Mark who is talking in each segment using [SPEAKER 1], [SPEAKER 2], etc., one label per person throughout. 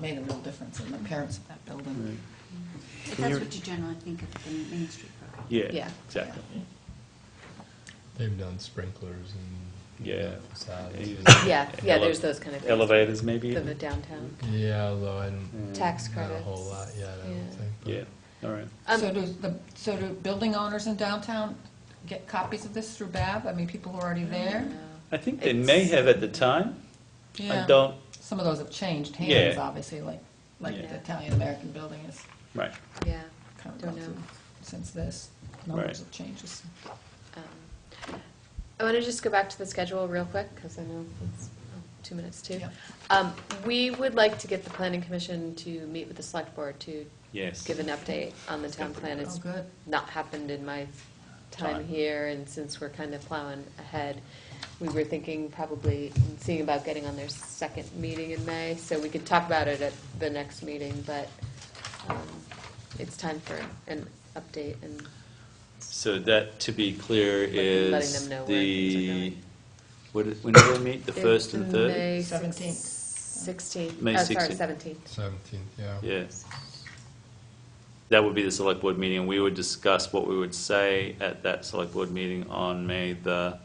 [SPEAKER 1] made a real difference in the appearance of that building.
[SPEAKER 2] But
[SPEAKER 3] Can
[SPEAKER 2] that's
[SPEAKER 3] you-
[SPEAKER 2] what you generally think of the Main Street program.
[SPEAKER 1] Yeah.
[SPEAKER 3] Yeah, exactly.
[SPEAKER 4] They've done sprinklers and
[SPEAKER 3] Yeah.
[SPEAKER 4] facades.
[SPEAKER 3] Even-
[SPEAKER 5] Yeah, yeah,
[SPEAKER 3] Ele-
[SPEAKER 5] there's those kind of things.
[SPEAKER 3] Elevators maybe?
[SPEAKER 5] For
[SPEAKER 3] even?
[SPEAKER 5] the downtown
[SPEAKER 4] Yeah, although I don't,
[SPEAKER 3] Mm.
[SPEAKER 5] tax
[SPEAKER 4] not
[SPEAKER 5] credits.
[SPEAKER 4] a whole lot yet, I don't
[SPEAKER 5] Yeah.
[SPEAKER 4] think. but-
[SPEAKER 3] Yeah, all right.
[SPEAKER 5] Um,
[SPEAKER 1] So do the, so do building owners in downtown get copies of this through BAB? I mean, people who are already there?
[SPEAKER 3] I think they may
[SPEAKER 5] It's-
[SPEAKER 3] have at the time. I
[SPEAKER 1] Yeah.
[SPEAKER 3] don't,
[SPEAKER 1] Some of those have changed hands,
[SPEAKER 3] Yeah.
[SPEAKER 1] obviously, like, like
[SPEAKER 3] Yeah.
[SPEAKER 1] the Italian-American building is
[SPEAKER 3] right.
[SPEAKER 5] Yeah,
[SPEAKER 1] kind of
[SPEAKER 5] Don't
[SPEAKER 1] gone
[SPEAKER 5] know.
[SPEAKER 1] through since this.
[SPEAKER 3] Right.
[SPEAKER 1] Numbers have changed.
[SPEAKER 5] um, I want to just go back to the schedule real quick, because I know it's oh, two minutes too.
[SPEAKER 1] Yeah.
[SPEAKER 5] Um, We would like to get the planning commission to meet with the select board to
[SPEAKER 3] Yes.
[SPEAKER 5] give an update on the town plan. It's
[SPEAKER 1] Oh, good.
[SPEAKER 5] not happened in my
[SPEAKER 3] Time.
[SPEAKER 5] time here, and since we're kind of plowing ahead, we were thinking probably, seeing about getting on their second meeting in May, so we could talk about it at the next meeting, but um, it's time for an update and
[SPEAKER 3] So that, to be clear,
[SPEAKER 5] Letting- letting
[SPEAKER 3] is
[SPEAKER 5] them know where
[SPEAKER 3] the,
[SPEAKER 5] things are
[SPEAKER 3] what, when do they meet? The first and third?
[SPEAKER 5] May
[SPEAKER 1] Seventeenth.
[SPEAKER 5] Sixteenth,
[SPEAKER 3] May
[SPEAKER 5] oh, sorry,
[SPEAKER 3] 16th.
[SPEAKER 5] seventeenth.
[SPEAKER 4] 17th, yeah.
[SPEAKER 3] Yeah. That would be the select board meeting, and we would discuss what we would say at that select board meeting on May the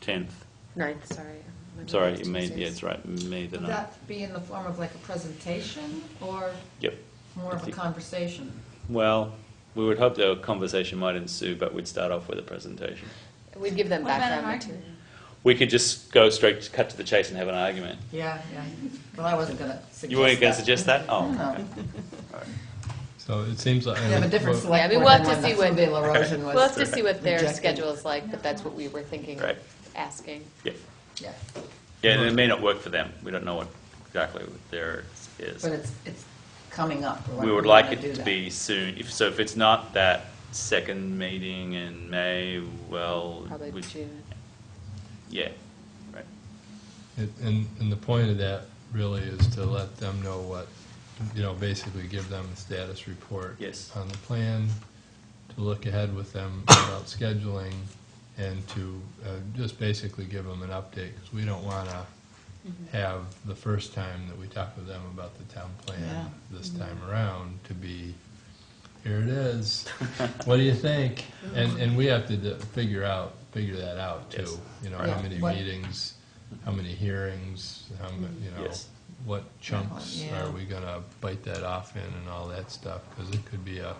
[SPEAKER 3] 10th.
[SPEAKER 5] Ninth, sorry. My
[SPEAKER 3] Sorry,
[SPEAKER 5] mind's
[SPEAKER 3] it may,
[SPEAKER 5] Tuesdays.
[SPEAKER 3] yeah, it's right, May the
[SPEAKER 1] Would
[SPEAKER 3] 9th.
[SPEAKER 1] that be in the form of like a presentation or
[SPEAKER 3] Yep.
[SPEAKER 1] more of a conversation?
[SPEAKER 3] Well, we would hope that a conversation might ensue, but we'd start off with a presentation.
[SPEAKER 5] We'd give them
[SPEAKER 1] What about an
[SPEAKER 5] background
[SPEAKER 1] argument?
[SPEAKER 5] material.
[SPEAKER 3] We could just go straight, cut to the chase and have an argument.
[SPEAKER 1] Yeah, yeah. Well, I wasn't gonna suggest that.
[SPEAKER 3] You weren't going to suggest that? Oh,
[SPEAKER 1] No.
[SPEAKER 3] okay.
[SPEAKER 4] So it seems like.
[SPEAKER 1] We have a different
[SPEAKER 4] well,
[SPEAKER 1] select
[SPEAKER 5] Yeah, I mean,
[SPEAKER 1] board
[SPEAKER 5] we'll
[SPEAKER 1] than
[SPEAKER 5] have to
[SPEAKER 1] one.
[SPEAKER 5] see what-
[SPEAKER 1] That's when De La Rosen was.
[SPEAKER 5] We'll have to see what their
[SPEAKER 1] rejected.
[SPEAKER 5] schedule is like, but that's what we were thinking of
[SPEAKER 3] Right.
[SPEAKER 5] asking.
[SPEAKER 3] Yeah.
[SPEAKER 1] Yeah,
[SPEAKER 3] Yeah, and it may not work for them. We don't know what exactly what there is.
[SPEAKER 1] but it's, it's coming up. We're
[SPEAKER 3] We would
[SPEAKER 1] we're
[SPEAKER 3] like
[SPEAKER 1] gonna do
[SPEAKER 3] it to
[SPEAKER 1] that.
[SPEAKER 3] be soon. If, so if it's not that second meeting in May, well.
[SPEAKER 5] Probably
[SPEAKER 3] we-
[SPEAKER 5] June.
[SPEAKER 3] Yeah, right.
[SPEAKER 4] it- And, and the point of that really is to let them know what, you know, basically give them a status report.
[SPEAKER 3] Yes.
[SPEAKER 4] On the plan, to look ahead with them about scheduling, and to uh, just basically give them an update, because we don't want to
[SPEAKER 1] Mm-hmm.
[SPEAKER 4] have the first time that we talk with them about the town
[SPEAKER 1] Yeah. Mm-hmm.
[SPEAKER 4] plan this time around to be, here it is, what do you think? And, and we have to d- figure out, figure that out
[SPEAKER 3] Yes.
[SPEAKER 4] too, you know,
[SPEAKER 1] Yeah.
[SPEAKER 4] how many
[SPEAKER 1] What-
[SPEAKER 4] meetings, how many hearings, how, mu- you know,
[SPEAKER 3] Yes.
[SPEAKER 4] what chunks
[SPEAKER 1] Yeah.
[SPEAKER 4] are we gonna bite that off in and all that stuff, because it could be a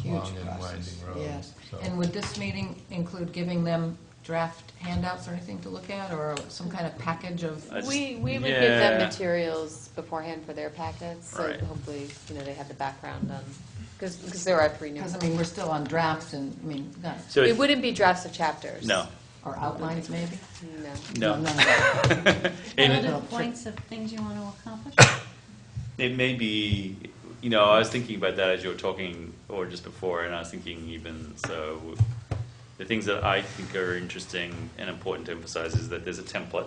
[SPEAKER 1] Huge
[SPEAKER 4] long and
[SPEAKER 1] process.
[SPEAKER 4] winding road.
[SPEAKER 1] Yes.
[SPEAKER 4] so.
[SPEAKER 1] And would this meeting include giving them draft handouts or anything to look at, or some kind of package of?
[SPEAKER 3] I just-
[SPEAKER 5] We, we would give them
[SPEAKER 3] Yeah.
[SPEAKER 5] materials beforehand for their packets, so
[SPEAKER 3] Right.
[SPEAKER 5] hopefully, you know, they have the background on, because, there are three new.
[SPEAKER 1] Because, I mean, we're still on drafts and, I mean, not,
[SPEAKER 3] So
[SPEAKER 5] It
[SPEAKER 3] if-
[SPEAKER 5] wouldn't be drafts of chapters.
[SPEAKER 3] No,
[SPEAKER 1] or outlines maybe?
[SPEAKER 5] No.
[SPEAKER 3] no.
[SPEAKER 1] none of that.
[SPEAKER 2] What
[SPEAKER 3] And-
[SPEAKER 2] are the points of things you want to accomplish?
[SPEAKER 3] It may be, you know, I was thinking about that as you were talking, or just before, and I was thinking even so. The things that I think are interesting and important to emphasize is that there's a template,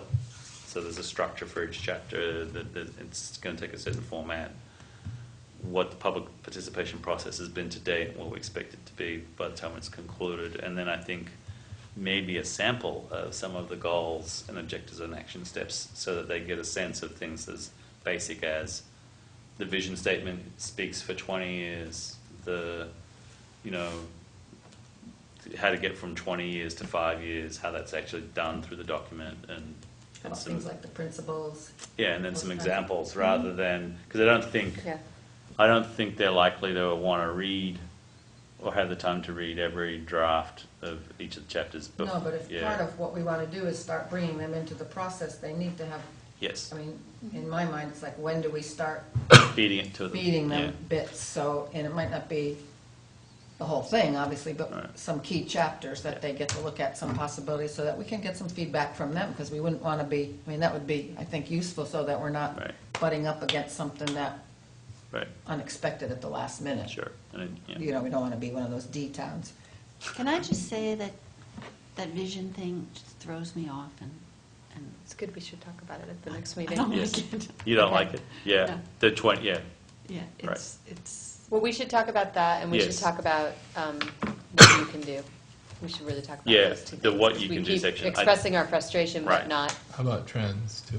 [SPEAKER 3] so there's a structure for each chapter. That, that it's going to take a certain format. What the public participation process has been to date, and what we expect it to be by the time it's concluded, and then I think maybe a sample of some of the goals and objectives and action steps, so that they get a sense of things as basic as the vision statement speaks for 20 years, the, you know, how to get from 20 years to five years, how that's actually done through the document and,
[SPEAKER 1] About
[SPEAKER 3] and some,
[SPEAKER 1] Things like the principles.
[SPEAKER 3] yeah, and then some
[SPEAKER 1] Okay.
[SPEAKER 3] examples rather than, because I don't think,
[SPEAKER 5] Yeah.
[SPEAKER 3] I don't think they're likely to want to read or have the time to read every draft of each of the chapters. bef-
[SPEAKER 1] No, but if
[SPEAKER 3] yeah.
[SPEAKER 1] part of what we want to do is start bringing them into the process, they need to have,
[SPEAKER 3] Yes,
[SPEAKER 1] I mean, in my mind, it's like, when do we start
[SPEAKER 3] feeding it to them.
[SPEAKER 1] feeding
[SPEAKER 3] yeah.
[SPEAKER 1] them bits? So, and it might not be the whole thing, obviously, but
[SPEAKER 3] Right.
[SPEAKER 1] some key chapters that they get to look at, some possibilities, so that we can get some feedback from them, because we wouldn't want to be, I mean, that would be, I think, useful, so that we're not
[SPEAKER 3] Right.
[SPEAKER 1] butting up against something that
[SPEAKER 3] Right, unexpected
[SPEAKER 1] unexpected at the last minute.
[SPEAKER 3] sure. And it- yeah.
[SPEAKER 1] You know, we don't want to be one of those D towns.
[SPEAKER 2] Can I just say that that vision thing just throws me off and, and
[SPEAKER 5] It's good, we should talk about it at the next
[SPEAKER 2] I
[SPEAKER 5] meeting.
[SPEAKER 2] don't
[SPEAKER 3] Yes.
[SPEAKER 2] like it.
[SPEAKER 3] You don't
[SPEAKER 2] Okay.
[SPEAKER 3] like it? Yeah,
[SPEAKER 2] No.
[SPEAKER 3] the 20, yeah,
[SPEAKER 2] Yeah,
[SPEAKER 3] Right.
[SPEAKER 2] it's, it's,
[SPEAKER 5] Well, we should talk about that, and we should
[SPEAKER 3] Yes.
[SPEAKER 5] talk about um, what you can do. We should really talk about
[SPEAKER 3] Yeah,
[SPEAKER 5] those two
[SPEAKER 3] the
[SPEAKER 5] things,
[SPEAKER 3] what
[SPEAKER 5] 'cause
[SPEAKER 3] you
[SPEAKER 5] we
[SPEAKER 3] can do
[SPEAKER 5] keep
[SPEAKER 3] section. I-
[SPEAKER 5] Expressing our frustration,
[SPEAKER 3] Right.
[SPEAKER 5] but not
[SPEAKER 4] How about trends, too?